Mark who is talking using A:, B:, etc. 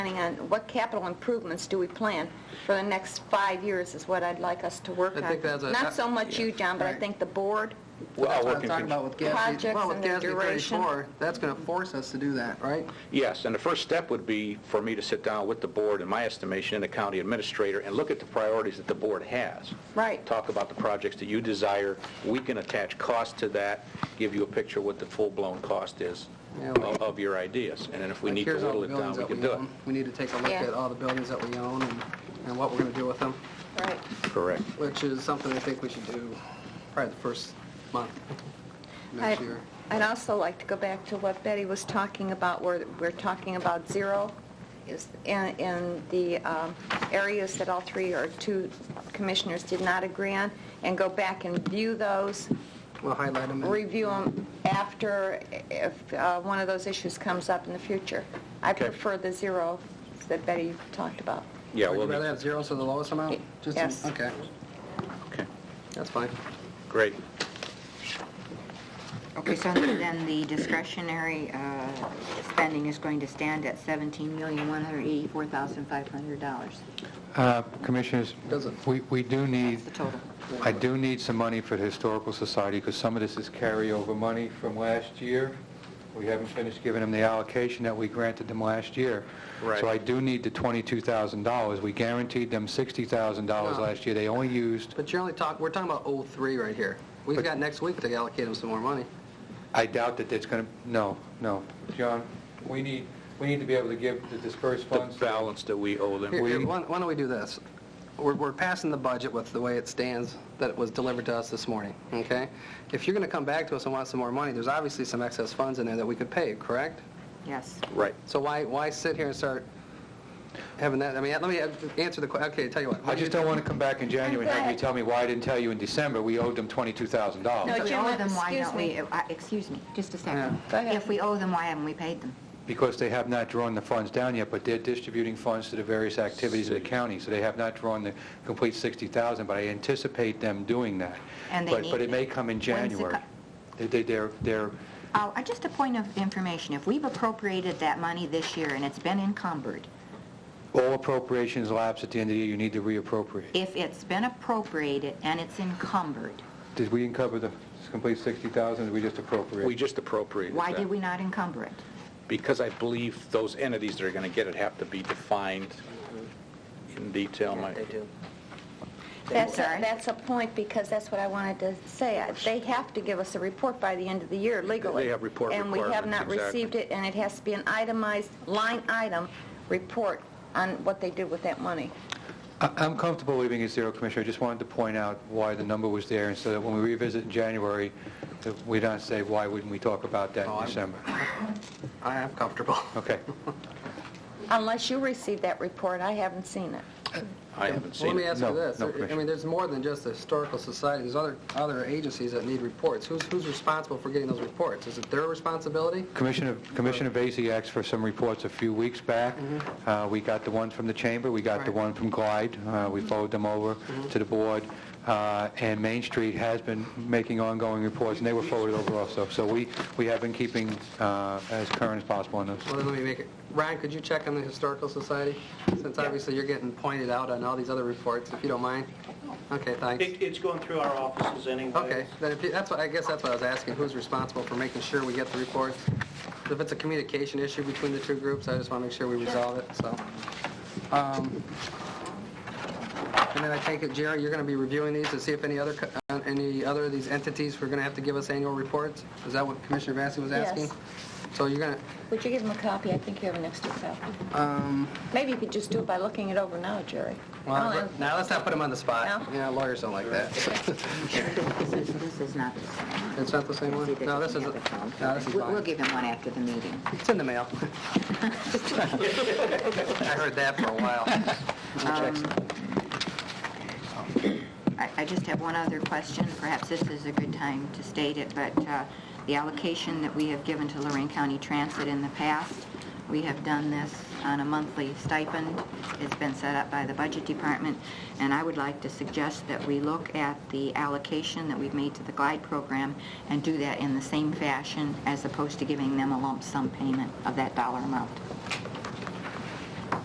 A: planning on, what capital improvements do we plan for the next five years is what I'd like us to work
B: I
A: on.
B: think that's a- uh,
A: Not so much you, John, but I
B: Right.
A: think the board.
C: Well,
B: That's what
C: we're
B: I'm talking
C: confused.
B: about with GASB.
A: Projects
B: Well, with
A: and their
B: GASB
A: duration.
B: 34, that's going to force us to do that, right?
C: Yes, and the first step would be for me to sit down with the board, in my estimation, and the county administrator, and look at the priorities that the board has.
A: Right.
C: Talk about the projects that you desire. We can attach cost to that, give you a picture of what the full-blown cost is
B: Yeah, we-
C: of of your ideas. And then if we
B: Like,
C: need to
B: here's all
C: whittle
B: the
C: it down,
B: buildings
C: we
B: that
C: can do it.
B: own. We need to take a look
A: Yeah.
B: at all the buildings that we own and and what we're going to do with them,
A: Right.
C: Correct.
B: which is something I think we should do probably the first month next
A: I'd
B: year.
A: I'd also like to go back to what Betty was talking about, where we're talking about zero is, and, and the um, areas that all three or two commissioners did not agree on, and go back and view those,
B: We'll highlight them. and-
A: review them after, if uh, one of those issues comes up in the future. I
C: Okay.
A: prefer the zero that Betty talked about.
C: Yeah,
B: Would
C: we'll,
B: you rather
C: be-
B: have zero, so the lowest amount? Just-
A: Yes.
B: Okay,
C: okay,
B: that's fine.
C: great.
D: Okay, so then the discretionary uh, spending is going to stand at $17,184,500.
E: Uh, Commissioners,
B: Doesn't-
E: we we do need,
D: That's the total.
E: I do need some money for the Historical Society, because some of this is carryover money from last year. We haven't finished giving them the allocation that we granted them last year.
C: Right.
E: So I do need the $22,000. We guaranteed them $60,000
B: No.
E: last year. They only used,
B: But you're only talking, we're talking about 03 right here. We've
E: But-
B: got next week to allocate them some more money.
E: I doubt that it's going to, no, no. John, we need, we need to be able to give the dispersed
C: The
E: funds.
C: balance that we owe them.
B: Here, here,
E: We-
B: why why don't we do this? We're, we're passing the budget with the way it stands that it was delivered to us this morning, okay? If you're going to come back to us and want some more money, there's obviously some excess funds in there that we could pay, correct?
D: Yes.
C: Right.
B: So why, why sit here and start having that, I mean, let me answer the, que- okay, tell you what.
E: I just don't want to come back in January and have you tell me, why I didn't tell you in December, we owed them $22,000.
A: No,
D: If we
A: Jim,
D: owe them, why
A: excuse
D: don't
A: me.
D: we, uh, excuse me, just a second.
B: Yeah.
A: Go ahead.
D: If we owe them, why haven't we paid them?
E: because they have not drawn the funds down yet, but they're distributing funds to the various activities of the county, so they have not drawn the complete 60,000, but I anticipate them doing that.
D: And they
E: But- But
D: need
E: it may
D: to.
E: come in
D: When's the
E: January. They- they- They're, they're,
D: Oh, uh, Just a point of information, if we've appropriated that money this year and it's been encumbered,
E: all appropriations lapse at the end of the year, you need to reappropriate.
D: if it's been appropriated and it's encumbered,
E: Did we uncover the complete 60,000, or did we just appropriate?
C: We just appropriated
D: why
C: that.
D: did we not encumber it?
C: Because I believe those entities that are going to get it have to be defined in detail, Mike.
A: That's, a-
D: Sorry?
A: that's a point, because that's what I wanted to say. I- They have to give us a report by the end of the year legally.
C: They have report
A: And we have
C: requirements,
A: not
C: exactly.
A: received it, and it has to be an itemized, line item, report on what they did with that money.
E: I- I'm comfortable leaving it zero, Commissioner. I just wanted to point out why the number was there, and so that when we revisit in January, that we don't say, why wouldn't we talk about that
B: Oh,
E: in
B: I'm-
E: December?
B: I am comfortable.
E: Okay.
A: Unless you received that report, I haven't seen it.
C: I haven't
B: Well,
C: seen
B: let me
C: it.
B: ask you
E: No,
B: this.
E: no,
B: I mean,
E: Commissioner.
B: there's more than just the Historical Society. There's other, other agencies that need reports. Who's, who's responsible for getting those reports? Is it their responsibility?
E: Commissioner Commissioner Vacy asked for some reports a few weeks back. Uh, We got the one from the Chamber, we got the
B: Right.
E: one from Glide, Uh, we followed them over to the Board, Uh, and Main Street has been making ongoing reports, and they were forwarded over also. So we we have been keeping uh, as current as possible on those.
B: Well, then let me make it, Ryan, could you check on the Historical Society? Since obviously you're getting pointed out on all these other reports, if you don't mind. Okay, thanks.
F: It- It's going through our offices anyway.
B: Okay, then if you, that's what, I guess that's what I was asking, who's responsible for making sure we get the reports? If it's a communication issue between the two groups, I just want to make sure we resolve it, so. Um, And then I take it, Jerry, you're going to be reviewing these to see if any other, co- uh, any other of these entities were going to have to give us annual reports? Is that what Commissioner Vacy was
A: Yes.
B: asking? So you're going to,
A: Would you give them a copy? I think you have an extra copy.
B: um...
A: Maybe you could just do it by looking it over now, Jerry.
B: Well,
A: Oh,
B: let-
A: and-
B: now, let's not put him on the spot.
A: No?
B: Yeah, lawyers don't like that.
D: This is, this is not the same.
B: It's not the same one?
D: See, this
B: No, this
D: the
B: is,
D: other phone.
B: no, this is
D: We'll- We'll
B: mine.
D: give him one after the meeting.
B: It's in the mail. I heard that for a while.
D: Um, I I just have one other question, perhaps this is a good time to state it, but uh, the allocation that we have given to Lorraine County Transit in the past, we have done this on a monthly stipend, it's been set up by the Budget Department, and I would like to suggest that we look at the allocation that we've made to the GLIDE program and do that in the same fashion as opposed to giving them a lump sum payment of that dollar amount.